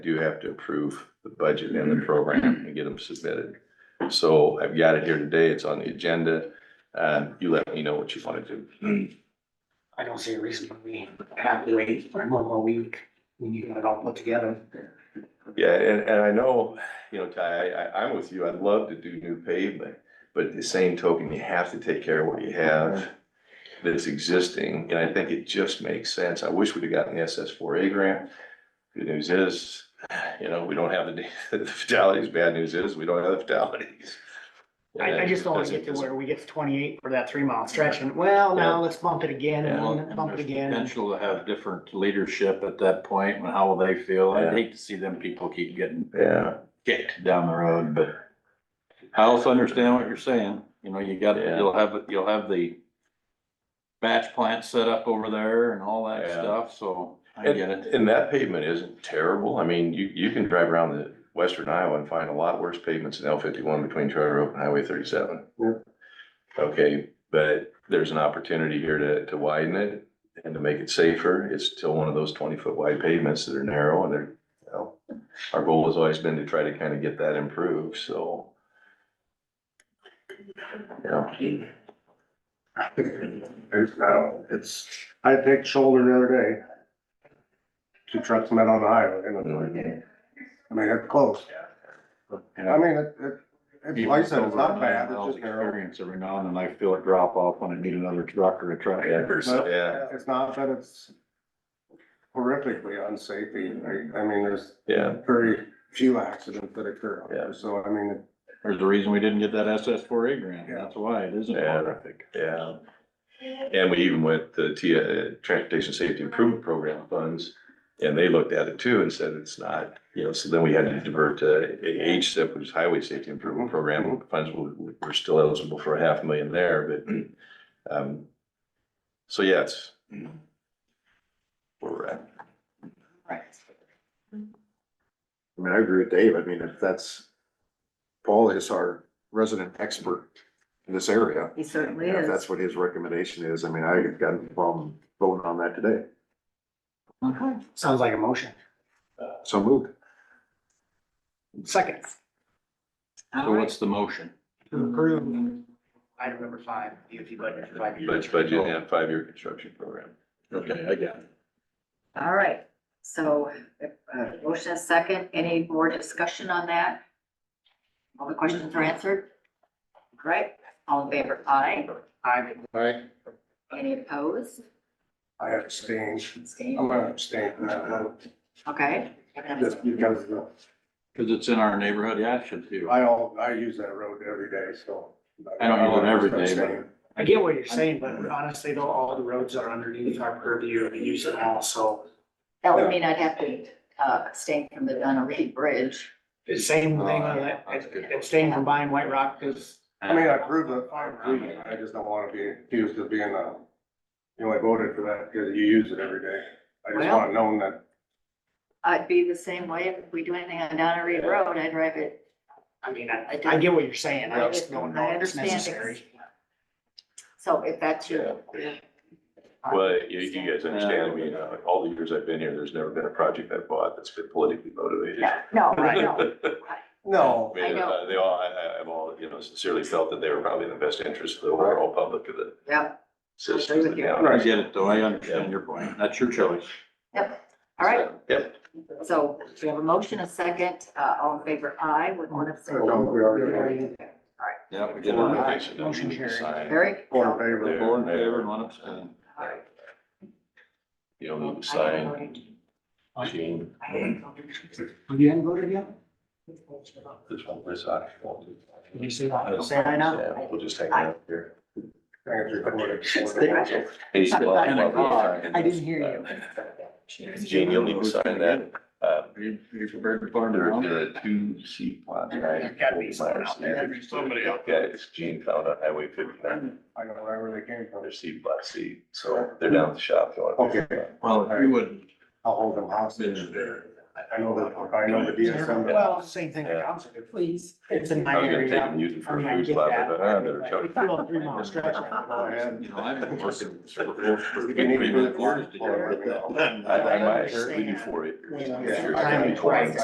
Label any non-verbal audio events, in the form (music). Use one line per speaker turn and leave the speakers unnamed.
do have to approve the budget and the program and get them submitted. So I've got it here today, it's on the agenda, uh, you let me know what you want to do.
I don't see a reason why we have to wait for one more week when you got it all put together.
Yeah, and, and I know, you know, Ty, I, I, I'm with you, I'd love to do new pavement, but at the same token, you have to take care of what you have that's existing, and I think it just makes sense, I wish we'd have gotten the SS four A grant. Good news is, you know, we don't have the, the (laughs) fatalities, bad news is, we don't have the fatalities.
I, I just don't wanna get to where we get to twenty-eight for that three mile stretch and, well,
Yeah.
now let's bump it again
Yeah.
and
Well,
then bump it
there's
again. and-
Potential to have different leadership at that point and how will they feel?
Yeah.
I'd hate to see them people keep getting
Yeah,
kicked down the road, but I also understand what you're saying. You know, you got,
Yeah.
you'll have, you'll have the batch plant set up over there and all that
Yeah.
stuff, so I
And,
get it.
and that pavement isn't terrible. I mean, you, you can drive around the western Iowa and find a lot worse pavements than L fifty-one between Charter Oak and Highway thirty-seven.
Yeah.
Okay, but there's an opportunity here to, to widen it and to make it safer. It's still one of those twenty-foot wide pavements that are narrow and they're, you know, our goal has always been to try to kind of get that improved, so. Yeah,
It's, I don't- it's, I picked shoulder the other day. Two trucks met on the highway, and I'm like,
Mm-hmm.
I mean, it's close. I mean, it, it, it's like I said, it's not bad, it's just narrow.
Experience every now and then I feel it drop off when I need another truck or a truck.
But
yeah,
It's not that it's horrifically unsafe, either. I, I mean, there's
yeah,
very few accidents that occur out there, so I mean, it-
There's a reason we didn't get that SS four A grant.
Yeah.
That's why it isn't
Yeah.
horrific.
yeah. And we even went to T, uh, Transportation Safety Improvement Program funds, and they looked at it too and said it's not, you know, so then we had to divert to HSIP, which is Highway Safety Improvement Program funds, we, we're still eligible for a half million there, but, (clears throat) um, so yeah, it's where we're at.
Right.
I mean, I agree with Dave. I mean, if that's, Paul is our resident expert in this area.
He certainly
and If
is.
that's what his recommendation is, I mean, I have got no problem voting on that today.
Sounds like a motion.
So moved.
Second,
So what's the motion?
to approve item number five, DOT budget for five years.
Budget, budget and five-year construction program.
Okay, I got it.
All right, so, uh, motion is second, any more discussion on that? All the questions are answered? Right, all in favor, aye,
I,
any opposed?
I abstain. I'm
Abstain?
gonna abstain from that one,
Okay.
just because the-
Cause it's in our neighborhood, yeah, I should too.
I all, I use that road every day, so.
I don't use it every day, but-
Abstain.
I get what you're saying, but honestly though, all the roads are underneath our purview and use it all, so
That would mean I'd have to, uh, abstain from the Donna Reed Bridge.
it's same thing,
Oh,
on that.
That's good.
abstain from buying White Rock, cause
I mean, I approve of, I approve it, I just don't wanna be accused of being a, you know, I voted for that because you use it every day. I just
Well-
want it known that,
I'd be the same way if we do anything on Donna Reed Road, I'd drive it.
I mean, I, I get what you're saying, I just don't know
I
if it's
understand it.
necessary.
So if that's your.
Well, you, you guys understand, I mean, uh, all the years I've been here, there's never been a project I've bought that's been politically motivated.
No, no, no.
(laughs)
no,
I mean,
I know.
uh, they all, I, I, I've all, you know, sincerely felt that they were probably in the best interest of the overall public of the
Yep,
citizens.
with you.
I get it though, I understand your point, that's your choice.
all right.
Yep,
So we have a motion, a second, uh, all in favor, aye, with one abstention.
No, Oh, we already-
Yeah, we get
Four in
it.
Aye.
favor, no
Motion
need to
carried.
sign.
Eric?
Four in favor.
Four in favor and one abstain.
You don't need to sign, Gene,
I haven't voted.
You haven't voted yet?
this one, this I.
Did you say that? Say Oh, I now?
Yeah, We'll just hang out here.
I think it's recorded.
Hey, so, uh,
And a car.
I didn't hear you.
Gene, you'll need to sign that, uh,
Are you, are you prepared to farm
there, there
it?
are two seat plots, right?
There's gotta be someone out there. Somebody out
Yeah, it's Gene found on Highway fifty-nine,
I don't know where they came from.
their seat, block seat, so they're down at the shop. if you want to-
Okay,
Well, if you would,
I'll hold them hostage.
Yeah.
I know that, I know the DSM. but-
Well, same thing,
Yeah.
council, please, it's in
I
my
was gonna take
area.
and use it for
I
a
mean, I
food
get
spot,
that,
but uh, I don't know,
but
Chuck.
we threw a three-mile stretch around the
Go
line.
ahead.
You know, I've been working.
We need to do it.
Years to get rid of
I
that.
think
I
my, we
understand.
do four acres.
When
Yeah.
the time is right.